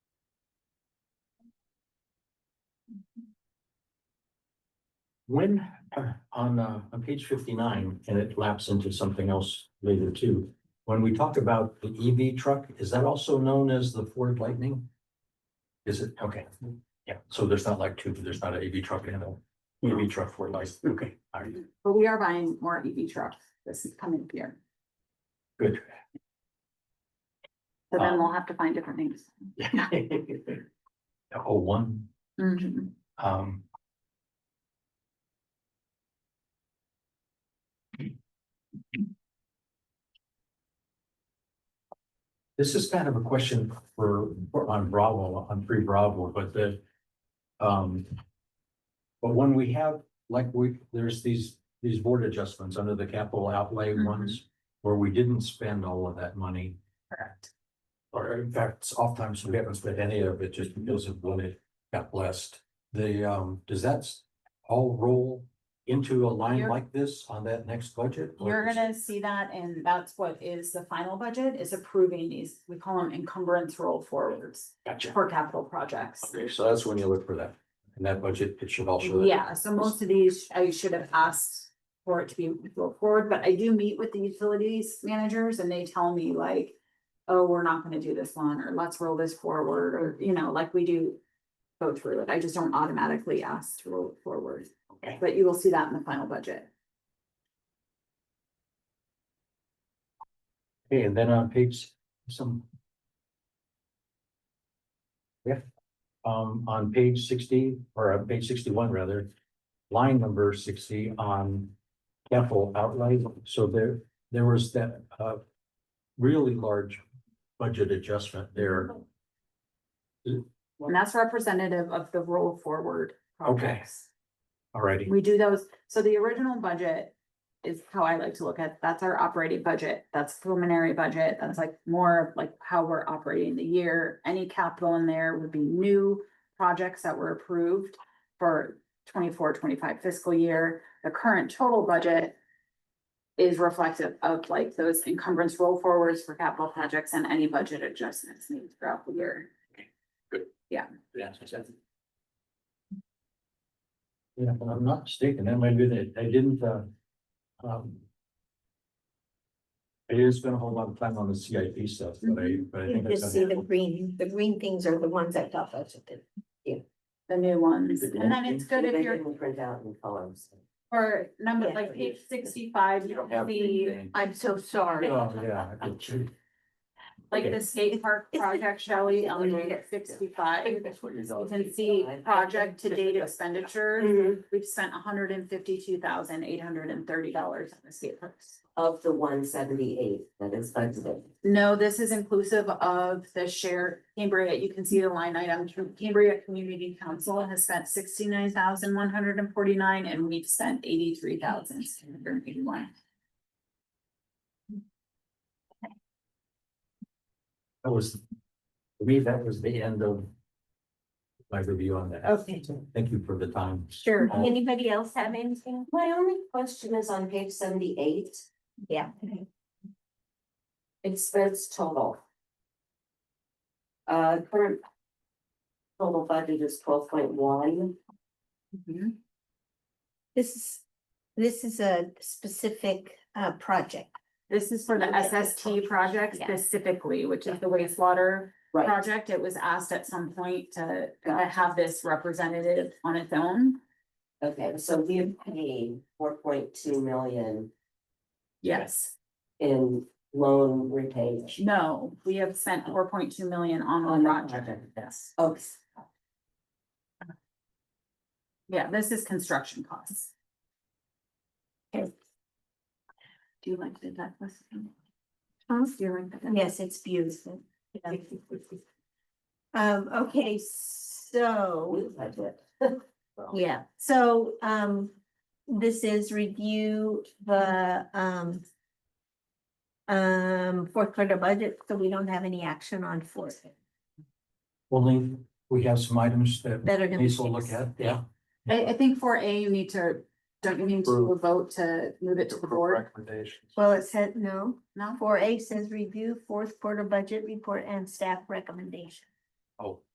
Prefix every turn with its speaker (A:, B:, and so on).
A: When, uh, on, uh, on page fifty-nine, and it laps into something else later too. When we talk about the EV truck, is that also known as the Ford Lightning? Is it? Okay. Yeah, so there's not like two, there's not an EV truck and an EV truck for life.
B: Okay.
A: All right,
C: But we are buying more EV trucks this coming year,
A: good.
C: so
A: Ah.
C: then we'll have to find different things.
A: The whole Oh, one,
D: Mm-hmm.
C: Mhm.
A: um. This is kind of a question for, for- on Bravo, on free Bravo, but the, um. But when we have, like, we, there's these, these board adjustments under the capital outlay
C: Mhm.
A: ones, where we didn't spend all of that money.
C: Correct.
A: Or in fact, oftentimes we haven't spent any of it just because of when it got blessed. The, um, does that s- all roll into a line
D: You're-
A: like this on that next budget? or
D: You're
A: is-
D: gonna see that, and that's what is the final budget, is approving these, we call them encumbrance roll forwards
A: Gotcha.
D: for capital projects.
A: Okay, so that's when you look for that. In that budget, it should all show that.
D: Yeah, so most of these, I should have asked for it to be rolled forward, but I do meet with the utilities managers and they tell me like. Oh, we're not gonna do this one, or let's roll this forward, or, you know, like we do go through it, I just don't automatically ask to roll it forward.
A: Okay.
D: But you will see that in the final budget.
A: Okay, and then on page some. Yeah, um, on page sixty, or on page sixty-one rather, line number sixty on capital outlay, so there, there was that, uh, really large budget adjustment there.
D: And that's representative of the roll forward
A: Okay.
D: projects.
A: Alrighty,
D: We do those, so the original budget is how I like to look at, that's our operating budget, that's preliminary budget, that's like more of like how we're operating the year. Any capital in there would be new projects that were approved for 24-25 fiscal year. The current total budget is reflective of like those encumbrance roll forwards for capital projects and any budget adjustments made throughout the year.
A: Yeah, if I'm not mistaken, that might be that I didn't, uh, um. I didn't spend a whole lot of time on the CIP stuff, but I, but I
E: You
A: think. I
E: just see the
A: saw-
E: green, the green things are the ones I thought that's what the.
D: The new ones, and then it's good if you're
E: Print out in colors.
D: Or number,
E: Yeah.
D: like page sixty-five,
A: You
D: you
A: don't
D: can
A: have
D: see
A: anything.
E: I'm so sorry.
A: Oh, yeah. I did too.
D: like the skate park project, Shelley,
E: Yeah.
D: on page sixty-five.
E: that's what
D: You can see project to date
F: Mm.
D: expenditures,
F: Mm-hmm.
D: we've spent hundred and fifty-two thousand eight hundred and thirty dollars on the skate parks.
E: Of the one seventy-eight that is budgeted.
D: No, this is inclusive of the share, Cambria, you can see the line item, Cambria Community Council has spent sixty-nine thousand one hundred and forty-nine, and we've spent eighty-three thousand seven hundred and eighty-one.
A: That was, for me, that was the end of. My review on that.
E: Okay.
A: Thank you for the time.
D: Sure.
E: Anybody else have anything? My only question is on page seventy-eight. Yeah. Expense total. Uh, current. Total budget is twelve point one.
F: This is, this is a specific uh project.
D: This is for the SST project
F: Yeah.
D: specifically, which is the wastewater
E: Right.
D: project. It was asked at some point to to have this representative on its own.
E: Okay, so we have paid four point two million
D: Yes.
E: in loan repayment.
D: No, we have spent four point two million on
E: On
D: the
E: the
D: project.
E: project.
D: Yes.
E: Okay,
D: Yeah, this is construction costs.
F: Okay.
D: Do you like the Douglas?
F: Huh?
D: Do you like the Douglas?
F: Yes, it's beautiful. Yeah. Um, okay, so,
E: we budget.
F: yeah, so um, this is review the um. Um, fourth quarter budget, so we don't have any action on fourth
A: Only, we have some items that
F: that are gonna. be
A: Lisa will look
F: fixed.
A: at, yeah.
D: I I think for A, you need to, don't you need to
A: Approve.
D: vote to move it to the board?
A: Recommendations.
F: Well, it said, no,
D: No?
F: four A says review fourth quarter budget report and staff recommendation.
A: Oh,